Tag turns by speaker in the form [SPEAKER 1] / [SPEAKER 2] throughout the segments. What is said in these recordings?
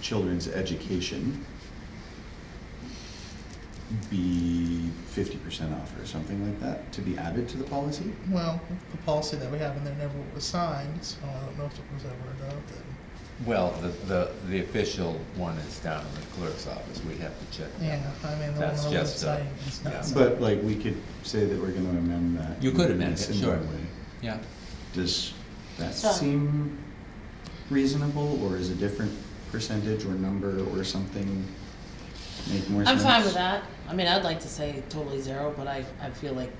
[SPEAKER 1] children's education be fifty percent off or something like that to be added to the policy?
[SPEAKER 2] Well, the policy that we have in there never was signed, so I don't know if it was ever adopted.
[SPEAKER 3] Well, the, the, the official one is down in the clerk's office, we have to check that.
[SPEAKER 2] Yeah, I mean, the one
[SPEAKER 3] That's
[SPEAKER 2] on the
[SPEAKER 3] just a-
[SPEAKER 2] website is
[SPEAKER 3] yeah.
[SPEAKER 2] not signed.
[SPEAKER 1] But like, we could say that we're gonna amend that.
[SPEAKER 3] You could
[SPEAKER 1] in a
[SPEAKER 3] amend it,
[SPEAKER 1] similar
[SPEAKER 3] sure.
[SPEAKER 1] way.
[SPEAKER 3] Yeah,
[SPEAKER 1] Does that
[SPEAKER 4] So-
[SPEAKER 1] seem reasonable, or is a different percentage or number or something make more
[SPEAKER 4] I'm
[SPEAKER 1] sense?
[SPEAKER 4] fine with that. I mean, I'd like to say totally zero, but I, I feel like,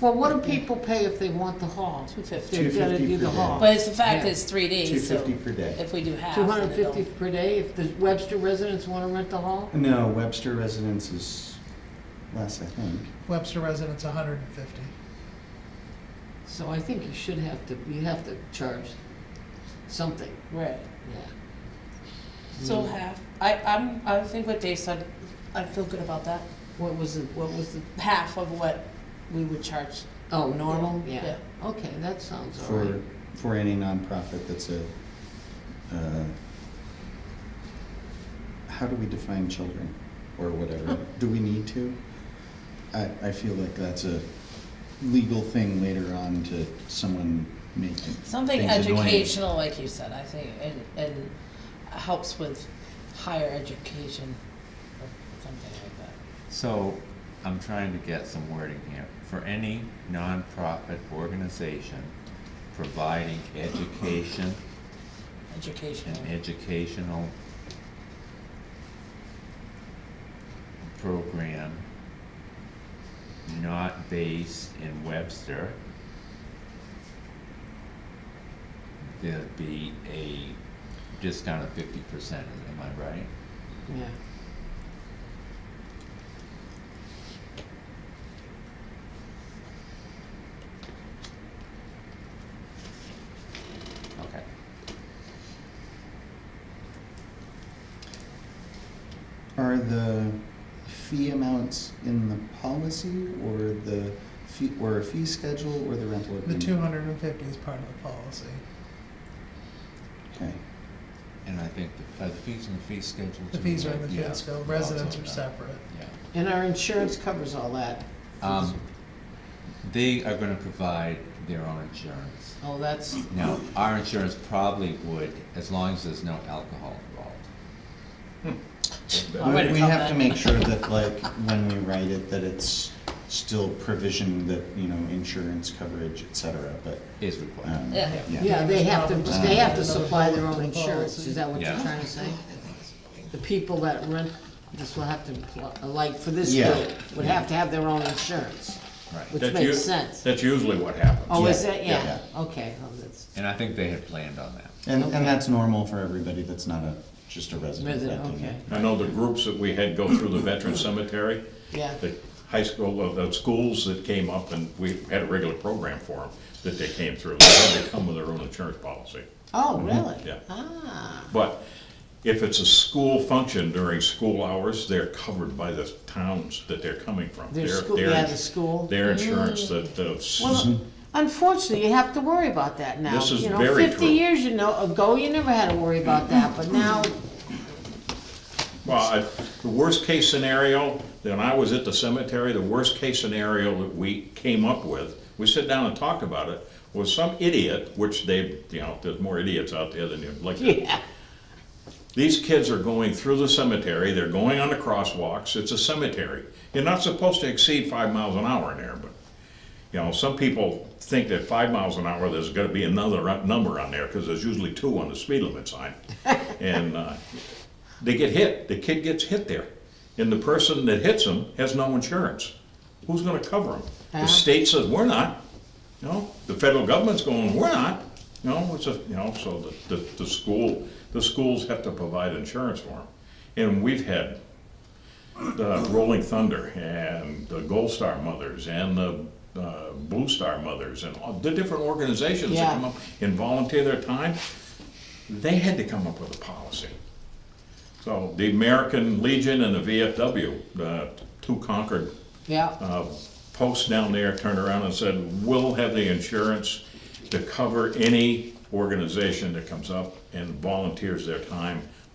[SPEAKER 5] Well, what do people pay if they want the hall?
[SPEAKER 4] 250.
[SPEAKER 5] They've gotta
[SPEAKER 1] 250
[SPEAKER 5] do the
[SPEAKER 1] per day.
[SPEAKER 5] hall.
[SPEAKER 4] but it's the fact that
[SPEAKER 5] Yeah.
[SPEAKER 4] it's three
[SPEAKER 1] Two
[SPEAKER 4] days, so
[SPEAKER 1] fifty per day.
[SPEAKER 4] if we do half.
[SPEAKER 5] Two
[SPEAKER 4] then it
[SPEAKER 5] hundred fifty
[SPEAKER 4] don't-
[SPEAKER 5] per day, if the Webster residents wanna rent the hall?
[SPEAKER 1] No, Webster residence is less, I think.
[SPEAKER 2] Webster residents, hundred and fifty.
[SPEAKER 5] So I think you should have to, you have to charge something,
[SPEAKER 4] Right,
[SPEAKER 5] yeah.
[SPEAKER 4] so
[SPEAKER 5] Mm.
[SPEAKER 4] half. I, I'm, I think what Dave said, I feel good about that.
[SPEAKER 5] What was it, what was the,
[SPEAKER 4] Half of what we would charge.
[SPEAKER 5] oh, normal,
[SPEAKER 4] Yeah,
[SPEAKER 5] yeah. Okay, that sounds all
[SPEAKER 1] For,
[SPEAKER 5] right.
[SPEAKER 1] for any nonprofit that's a, uh, how do we define children or whatever? Do we need to? I, I feel like that's a legal thing later on to someone making
[SPEAKER 4] Something
[SPEAKER 1] things annoying.
[SPEAKER 4] educational, like you said, I think, and, and helps with higher education or something like that.
[SPEAKER 3] so I'm trying to get some wording here. For any nonprofit organization providing education and
[SPEAKER 4] Educational.
[SPEAKER 3] educational program not based in Webster, there'd be a discount of fifty percent, am I right?
[SPEAKER 5] Yeah.
[SPEAKER 3] Okay.
[SPEAKER 1] Are the fee amounts in the policy or the fee, or a fee schedule or the rental
[SPEAKER 2] The
[SPEAKER 1] agreement?
[SPEAKER 2] two hundred and fifty is part of the policy.
[SPEAKER 1] Okay,
[SPEAKER 3] And I think the, uh, the fees and the fee schedule
[SPEAKER 2] The
[SPEAKER 3] too,
[SPEAKER 2] fees are
[SPEAKER 3] right?
[SPEAKER 2] in the
[SPEAKER 3] Yeah.
[SPEAKER 2] fee schedule, residents
[SPEAKER 3] Also
[SPEAKER 2] are
[SPEAKER 3] not-
[SPEAKER 2] separate.
[SPEAKER 3] Yeah.
[SPEAKER 5] And our insurance covers all that.
[SPEAKER 3] Um, they are gonna provide their own insurance.
[SPEAKER 5] Oh, that's,
[SPEAKER 3] Now, our insurance probably would, as long as there's no alcohol involved.
[SPEAKER 4] I'll write
[SPEAKER 1] We-
[SPEAKER 4] a
[SPEAKER 1] we have to
[SPEAKER 4] comment.
[SPEAKER 1] make sure that like, when we write it, that it's still provisioned that, you know, insurance coverage, et cetera, but,
[SPEAKER 3] Is required.
[SPEAKER 1] um,
[SPEAKER 4] Yeah.
[SPEAKER 1] yeah.
[SPEAKER 5] yeah, they have to, they have to
[SPEAKER 2] Another
[SPEAKER 5] supply their
[SPEAKER 2] bullet
[SPEAKER 5] own
[SPEAKER 2] to the
[SPEAKER 5] insurance,
[SPEAKER 2] policy.
[SPEAKER 5] is that what you're
[SPEAKER 3] Yeah.
[SPEAKER 5] trying to say? The people that rent, this will have to, pl- like, for this
[SPEAKER 1] Yeah.
[SPEAKER 5] group, would have to have their own insurance,
[SPEAKER 3] Right.
[SPEAKER 5] which
[SPEAKER 6] That's
[SPEAKER 5] makes
[SPEAKER 6] u-
[SPEAKER 5] sense.
[SPEAKER 6] That's usually what happens.
[SPEAKER 5] Oh, is
[SPEAKER 1] Yeah,
[SPEAKER 5] that,
[SPEAKER 1] yeah,
[SPEAKER 5] yeah, okay, oh, that's,
[SPEAKER 3] And I think they had planned on that.
[SPEAKER 1] And,
[SPEAKER 5] Okay.
[SPEAKER 1] and that's normal for everybody that's not a, just a resident
[SPEAKER 5] Resident,
[SPEAKER 1] renting it.
[SPEAKER 5] okay.
[SPEAKER 6] I know the groups that we had go through the veteran cemetery,
[SPEAKER 5] yeah.
[SPEAKER 6] the high school, uh, the schools that came up and we had a regular program for them that they came through. They had to come with their own insurance policy.
[SPEAKER 5] Oh, really?
[SPEAKER 6] mm-hmm. Yeah.
[SPEAKER 5] Ah,
[SPEAKER 6] But if it's a school function during school hours, they're covered by the towns that they're coming from.
[SPEAKER 5] their school, yeah, the school.
[SPEAKER 6] Their insurance that, uh, s-
[SPEAKER 5] Well, unfortunately, you have to worry about that now.
[SPEAKER 6] This is
[SPEAKER 5] You know,
[SPEAKER 6] very
[SPEAKER 5] Fifty
[SPEAKER 6] true.
[SPEAKER 5] years, you know, ago, you never had to worry about that, but now,
[SPEAKER 6] Well, I- the worst-case scenario, when I was at the cemetery, the worst-case scenario that we came up with, we sat down and talked about it, was some idiot, which they, you know, there's more idiots out there than you'd like to.
[SPEAKER 5] yeah,
[SPEAKER 6] These kids are going through the cemetery, they're going on the crosswalks, it's a cemetery. You're not supposed to exceed five miles an hour in there, but, you know, some people think that five miles an hour, there's gonna be another ru- number on there, because there's usually two on the speed limit sign. And, uh, they get hit, the kid gets hit there, and the person that hits him has no insurance. Who's gonna cover him?
[SPEAKER 5] Ah.
[SPEAKER 6] The state says, we're not, you know, the federal government's going, we're not, you know, it's a, you know, so the, the, the school, the schools have to provide insurance for them. And we've had the Rolling Thunder and the Gold Star Mothers and the uh, Blue Star Mothers and all the different organizations that
[SPEAKER 5] Yeah.
[SPEAKER 6] come up and volunteer their time, they had to come up with a policy. So the American Legion and the VFW, the uh, two Concord
[SPEAKER 5] yeah,
[SPEAKER 6] uh, posts down there, turned around and said, we'll have the insurance to cover any organization that comes up and volunteers their time